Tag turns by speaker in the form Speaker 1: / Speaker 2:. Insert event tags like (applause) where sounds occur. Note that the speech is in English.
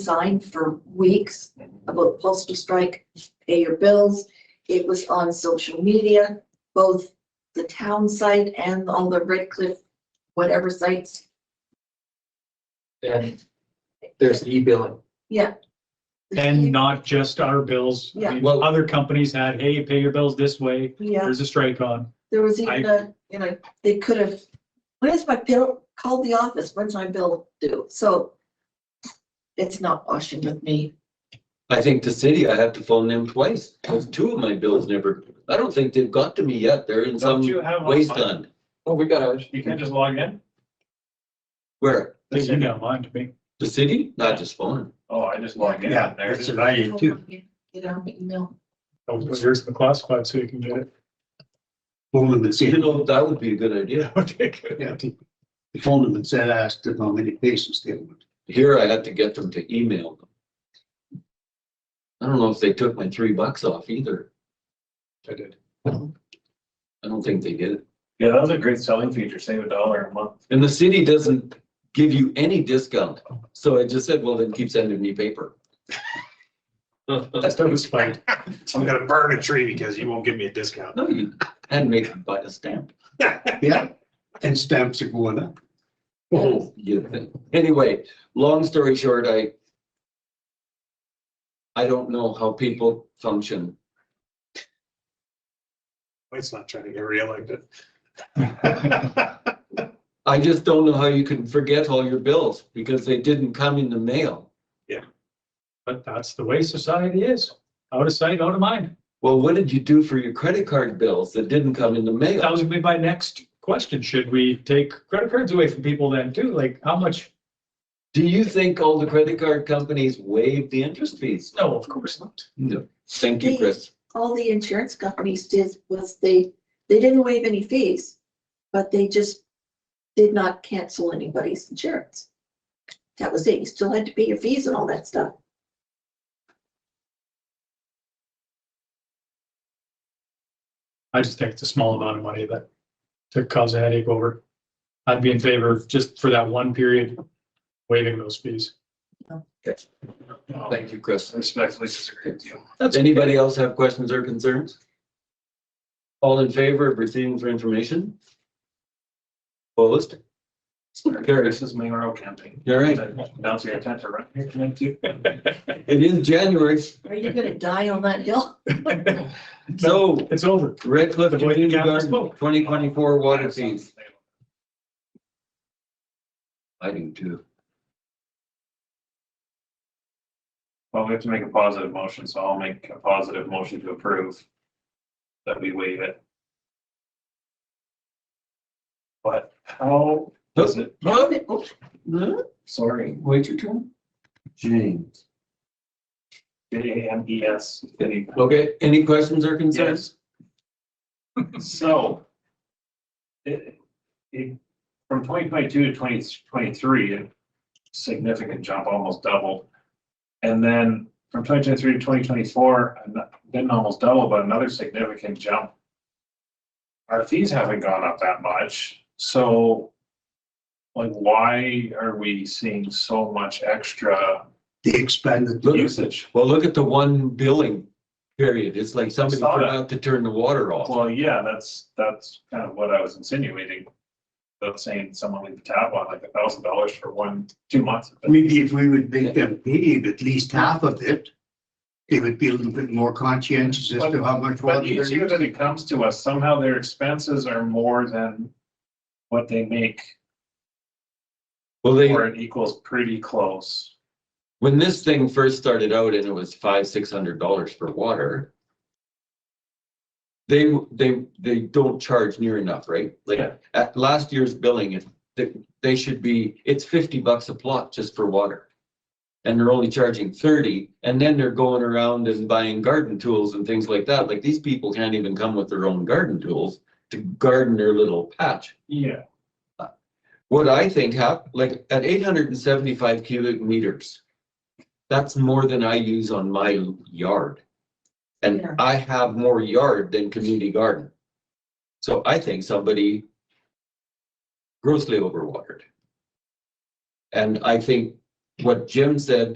Speaker 1: sign for weeks about postal strike, pay your bills. It was on social media, both the town site and on the Red Cliff, whatever sites.
Speaker 2: And there's e-billing.
Speaker 3: And not just our bills. I mean,
Speaker 2: Yeah. Well-
Speaker 3: Other companies had, hey, pay your bills this way,
Speaker 1: Yeah,
Speaker 3: there's a strike on.
Speaker 1: there was even a, you know, they could have, when is my bill? Called the office, when's my bill due? So it's not washing with me.
Speaker 4: I think the city, I have to phone them twice, because two of my bills never, I don't think they've got to me yet, they're in
Speaker 3: Don't
Speaker 4: some
Speaker 3: you have?
Speaker 4: waste
Speaker 3: online?
Speaker 4: fund.
Speaker 2: Oh, we got ours.
Speaker 3: You can't just log in?
Speaker 4: Where?
Speaker 3: You can get online to me.
Speaker 4: The city? Not just phone.
Speaker 5: Oh, I just logged in
Speaker 3: Yeah,
Speaker 5: there.
Speaker 4: that's
Speaker 5: I
Speaker 1: Get on the email.
Speaker 3: Oh, Here's the classified, so you can get it.
Speaker 6: Phone them and
Speaker 4: You
Speaker 6: said,
Speaker 4: know, that would be a good
Speaker 5: (laughs)
Speaker 4: idea.
Speaker 3: Okay, good.
Speaker 6: yeah, they phoned them and said, asked them how many cases they went.
Speaker 4: Here I had to get them to email them. I don't know if they took my three bucks off either.
Speaker 3: I did.
Speaker 4: I don't think they did.
Speaker 5: Yeah, that was a great selling feature, save a dollar a month.
Speaker 4: And the city doesn't give you any discount. So I just said, well, then keep sending me paper.
Speaker 3: That's that was fine.
Speaker 5: (laughs) I'm gonna burn a tree because you won't give me a discount.
Speaker 4: No, you hadn't made them buy a stamp.
Speaker 6: (laughs) Yeah, and stamps are going up.
Speaker 4: Oh, you think. Anyway, long story short, I I don't know how people function.
Speaker 5: It's not trying to get reelected.
Speaker 4: I just don't know how you can forget all your bills because they didn't come in the mail.
Speaker 3: But that's the way society is. Out of sight, out of mind.
Speaker 4: Well, what did you do for your credit card bills that didn't come in the
Speaker 3: That
Speaker 4: mail?
Speaker 3: was gonna be my next question. Should we take credit cards away from people then too? Like, how much?
Speaker 4: Do you think all the credit card companies waived the interest fees?
Speaker 3: No, of course not.
Speaker 4: No. Thank you, Chris.
Speaker 1: all the insurance companies did was they, they didn't waive any fees, but they just did not cancel anybody's insurance. That was it. You still had to pay your fees and all that stuff.
Speaker 3: I just think it's a small amount of money that to cause a headache over. I'd be in favor of just for that one period waiving those fees.
Speaker 4: Thank you, Chris.
Speaker 5: Respectfully disagree with you.
Speaker 4: Does anybody else have questions or concerns? All in favor of receiving for information? Opposed? Carried.
Speaker 5: This is mayoral campaign.
Speaker 4: All right,
Speaker 5: Bounce your attention right here, thank you.
Speaker 4: it is January,
Speaker 1: Are you gonna die on that hill?
Speaker 4: so
Speaker 3: It's over.
Speaker 4: Red Cliff
Speaker 3: The boy
Speaker 4: Community
Speaker 3: Captain
Speaker 4: Garden,
Speaker 3: spoke.
Speaker 4: twenty twenty-four water fees. I do too.
Speaker 5: Well, we have to make a positive motion, so I'll make a positive motion to approve. That we waive it. But how does it, sorry,
Speaker 4: Wait your turn. James.
Speaker 5: J A M E S.
Speaker 4: Okay, any questions or concerns?
Speaker 5: So. It, it, from twenty twenty-two to twenty twenty-three, a significant jump, almost doubled. And then from twenty twenty-three to twenty twenty-four, didn't almost double, but another significant jump. Our fees haven't gone up that much, so. Like, why are we seeing so much extra
Speaker 6: They expanded.
Speaker 4: Look-
Speaker 5: usage?
Speaker 4: Well, look at the one billing period. It's like somebody
Speaker 5: Saw that.
Speaker 4: forgot to turn the water off.
Speaker 5: Well, yeah, that's, that's kind of what I was insinuating. About saying someone leave the tap on like a thousand dollars for one, two months.
Speaker 6: Maybe if we would make them pay at least half of it, they would be a little bit more conscientious as to how much water
Speaker 5: But
Speaker 6: they're
Speaker 5: each year that
Speaker 6: using.
Speaker 5: it comes to us, somehow their expenses are more than what they make,
Speaker 4: Well, they,
Speaker 5: or it equals pretty close.
Speaker 4: when this thing first started out and it was five, six hundred dollars for water. They, they, they don't charge near enough, right?
Speaker 5: Yeah.
Speaker 4: Like at last year's billing, it- they, they should be, it's fifty bucks a plot just for water. And they're only charging thirty and then they're going around and buying garden tools and things like that. Like these people can't even come with their own garden tools to garden their little patch
Speaker 5: Yeah.
Speaker 4: what I think hap, like at eight hundred and seventy-five cubic meters. That's more than I use on my yard. And
Speaker 1: Yeah.
Speaker 4: I have more yard than community garden. So I think somebody grossly overwatered. And I think what Jim said